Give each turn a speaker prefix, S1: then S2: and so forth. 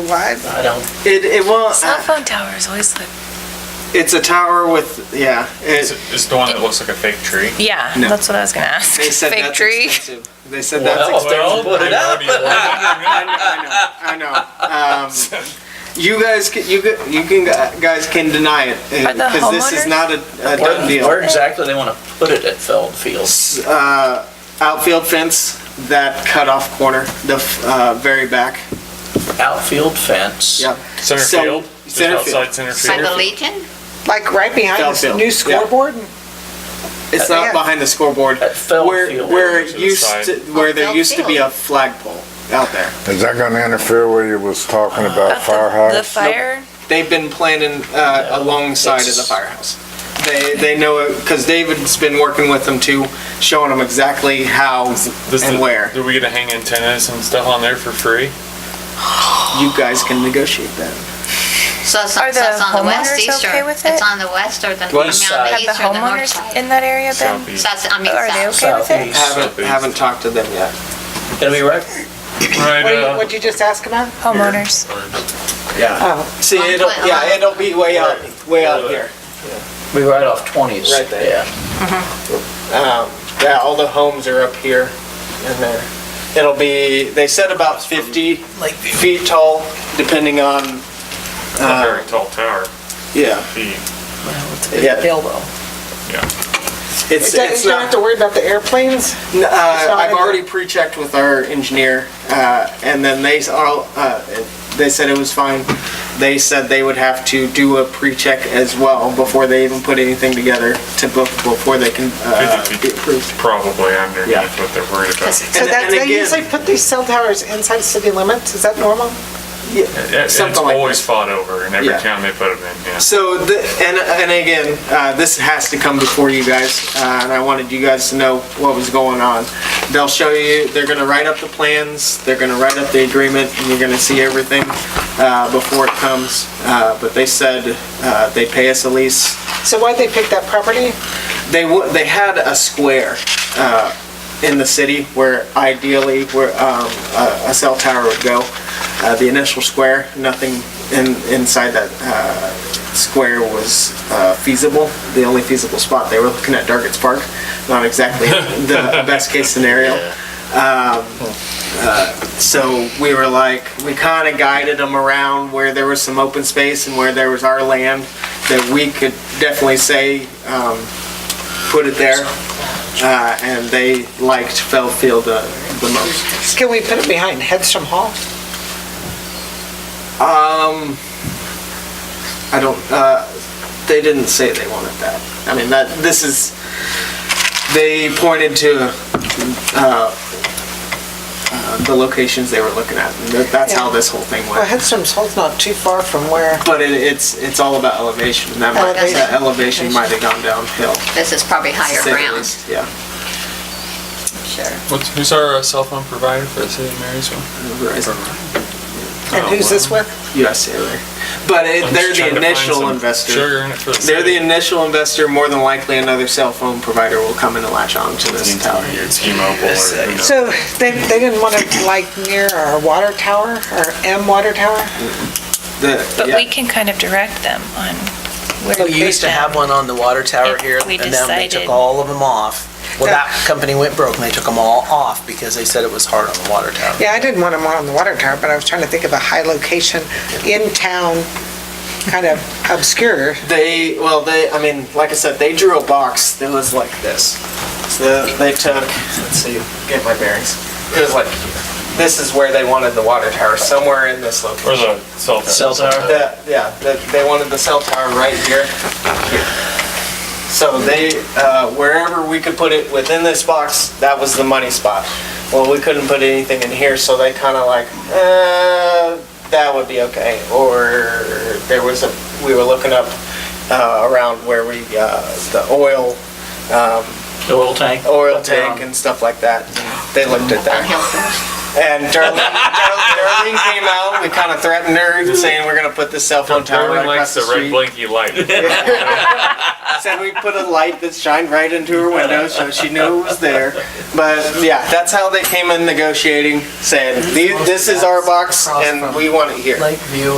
S1: wide?
S2: I don't,
S1: It, it won't,
S3: Cell phone towers always look.
S1: it's a tower with, yeah,
S4: Is
S1: it,
S4: it- is the one that looks like a fake tree?
S3: Yeah,
S1: No.
S3: that's what I was gonna ask.
S1: they said
S3: Fake
S1: that's
S3: tree.
S1: expensive. They said that's
S2: Well,
S1: expensive.
S2: well, put it up.
S1: I know, I know, I know. Um, You guys, can- you, ca- you can, guys can deny it,
S3: Are the
S1: because this is
S3: homeowners-
S1: not a a done
S2: where, where
S1: deal.
S2: exactly they wanna put it at Feld Fields?
S1: Uh, Outfield fence, that cutoff corner, the f- uh, very back,
S2: Outfield fence.
S1: yep.
S4: Center
S1: So-
S4: field? Just
S1: center field.
S4: outside center
S5: By
S4: field?
S5: the Legion?
S6: Like right behind
S1: Downfield,
S6: this new
S1: yeah.
S6: scoreboard?
S1: It's not
S6: Yeah.
S1: behind the scoreboard.
S2: At Feld
S1: Where,
S2: Field.
S1: where
S4: To
S1: it
S4: the
S1: used
S4: side.
S1: to, where there
S5: Feld
S1: used to be
S5: Field.
S1: a flagpole out there.
S7: Is that gonna interfere with you was talking about
S3: About the, the
S7: firehouse?
S3: fire.
S1: They've been planning uh, alongside of the firehouse. They, they know it, because David's been working with them too, showing them exactly how
S4: Does
S1: and
S4: the-
S1: where.
S4: Do we get to hang antennas and stuff on there for free?
S1: You guys can negotiate that.
S5: So it's, so
S3: Are the
S5: it's on the west
S3: homeowners
S5: east
S3: okay
S5: or,
S3: with
S5: it's
S3: it?
S5: on the west or the, I mean, on the
S2: West
S5: east
S2: side.
S5: or
S3: Have the
S5: the north
S3: homeowners
S5: side?
S3: in that area
S4: South
S3: been?
S4: east.
S5: So that's, I mean,
S3: Are they
S5: south.
S3: okay with it?
S2: Southeast.
S1: Haven't,
S4: Please.
S1: haven't talked to them yet.
S2: Gonna be right,
S4: Right,
S6: What do you-
S4: uh,
S6: What'd you just ask about?
S3: Homeowners.
S2: yeah,
S6: Oh,
S1: See,
S5: On
S1: it'll,
S5: what-
S1: yeah, it'll be way out, way out here.
S2: be right off Twentieth.
S1: Right there.
S2: Yeah,
S1: Um, Yeah, all the homes are up here and there. It'll be, they said about 50 feet tall, depending on,
S4: it's not a very tall tower.
S1: yeah.
S4: Gee,
S1: Yeah.
S2: elbow.
S1: It's,
S6: It doesn't-
S1: it's
S6: you don't have
S1: not,
S6: to worry about the airplanes?
S1: uh,
S6: not
S1: I've
S6: in-
S1: already pre-checked with our engineer, uh, and then they s- all, uh, they said it was fine. They said they would have to do a pre-check as well before they even put anything together to, book- before they can, uh,
S4: 50
S1: be approved.
S4: Probably
S1: Yeah.
S4: underneath what they're worried about.
S6: So
S1: And-
S6: that's,
S1: and
S6: they
S1: again-
S6: usually put these cell towers inside city limits, is that normal?
S4: It- It's
S1: Something like
S4: always fought over in every
S1: Yeah.
S4: town they put them in, yeah.
S1: So, the, and, and again, uh, this has to come before you guys, uh, and I wanted you guys to know what was going on. They'll show you, they're gonna write up the plans, they're gonna write up the agreement, and you're gonna see everything, uh, before it comes. Uh, but they said, uh, they pay us a lease.
S6: So why'd they pick that property?
S1: They wa, they had a square, uh, in the city where ideally, where, um, a, a cell tower would go. Uh, the initial square, nothing in, inside that, uh, square was uh, feasible, the only feasible spot. They were looking at Dargett's Park, not exactly the best case scenario. Um, uh, So we were like, we kind of guided them around where there was some open space and where there was our land that we could definitely say, um, put it there. Uh, And they liked Fellfield the the most.
S6: Can we put it behind Headstrom Hall?
S1: I don't, uh, they didn't say they wanted that. I mean, that, this is, they pointed to, uh, uh, the locations they were looking at. and that- That's how this whole thing
S6: Well,
S1: went.
S6: Headstrom Hall's not too far from where,
S1: But it, it's, it's all about elevation. and That might, that elevation might have gone downhill. to
S5: This is probably higher
S1: say the
S5: ground,
S1: least. Yeah,
S5: sure.
S4: What's, who's our uh, cell phone provider for the city of Marysville?
S1: Verizon, Oh,
S6: and who's this with?
S1: USA there. But it-
S4: I'm
S1: they're
S4: just trying
S1: the
S4: to find
S1: initial
S4: some
S1: investor.
S4: Sugar in it for the
S1: They're the
S4: city.
S1: initial investor, more than likely another cell phone provider will come in and latch on to this tower.
S4: It's T-Mobile or, who knows.
S6: So they, they didn't want it like near our water tower, our M water tower?
S1: The-
S3: But
S1: yeah.
S3: we can kind of direct them on where
S8: Well,
S3: to
S8: you used to
S3: put
S8: have
S3: them.
S8: one on the water tower
S3: If
S8: here,
S3: we
S8: and then they
S3: decided-
S8: took all of them off. Well, that company went broke, and they took them all off because they said it was hard on the water tower.
S6: Yeah, I didn't want them on the water tower, but I was trying to think of a high location in town, kind of obscure.
S1: They, well, they, I mean, like I said, they drew a box that was like this. So they took, let's see, get my bearings. It was like, this is where they wanted the water tower, somewhere in this location.
S4: or the cell phone.
S8: Cell tower?
S1: The, yeah, the, they wanted the cell tower right here, here. So they, uh, wherever we could put it within this box, that was the money spot. Well, we couldn't put anything in here, so they kind of like, uh, that would be okay. Or there was a, we were looking up, uh, around where we, uh, the oil,
S2: The oil tank?
S1: oil tank and stuff like that. They looked at that.
S5: Hilton.
S1: And Darlene, Dar- Darlene came out, we kind of threatened her, saying we're gonna put this cell phone tower right
S4: Darling
S1: across
S4: likes
S1: the
S4: the red
S1: street.
S4: blinky light.
S1: Said we put a light that shined right into her window, so she knew it was there. But yeah, that's how they came in negotiating, saying, "These- this is our box and we want it here.
S8: Lakeview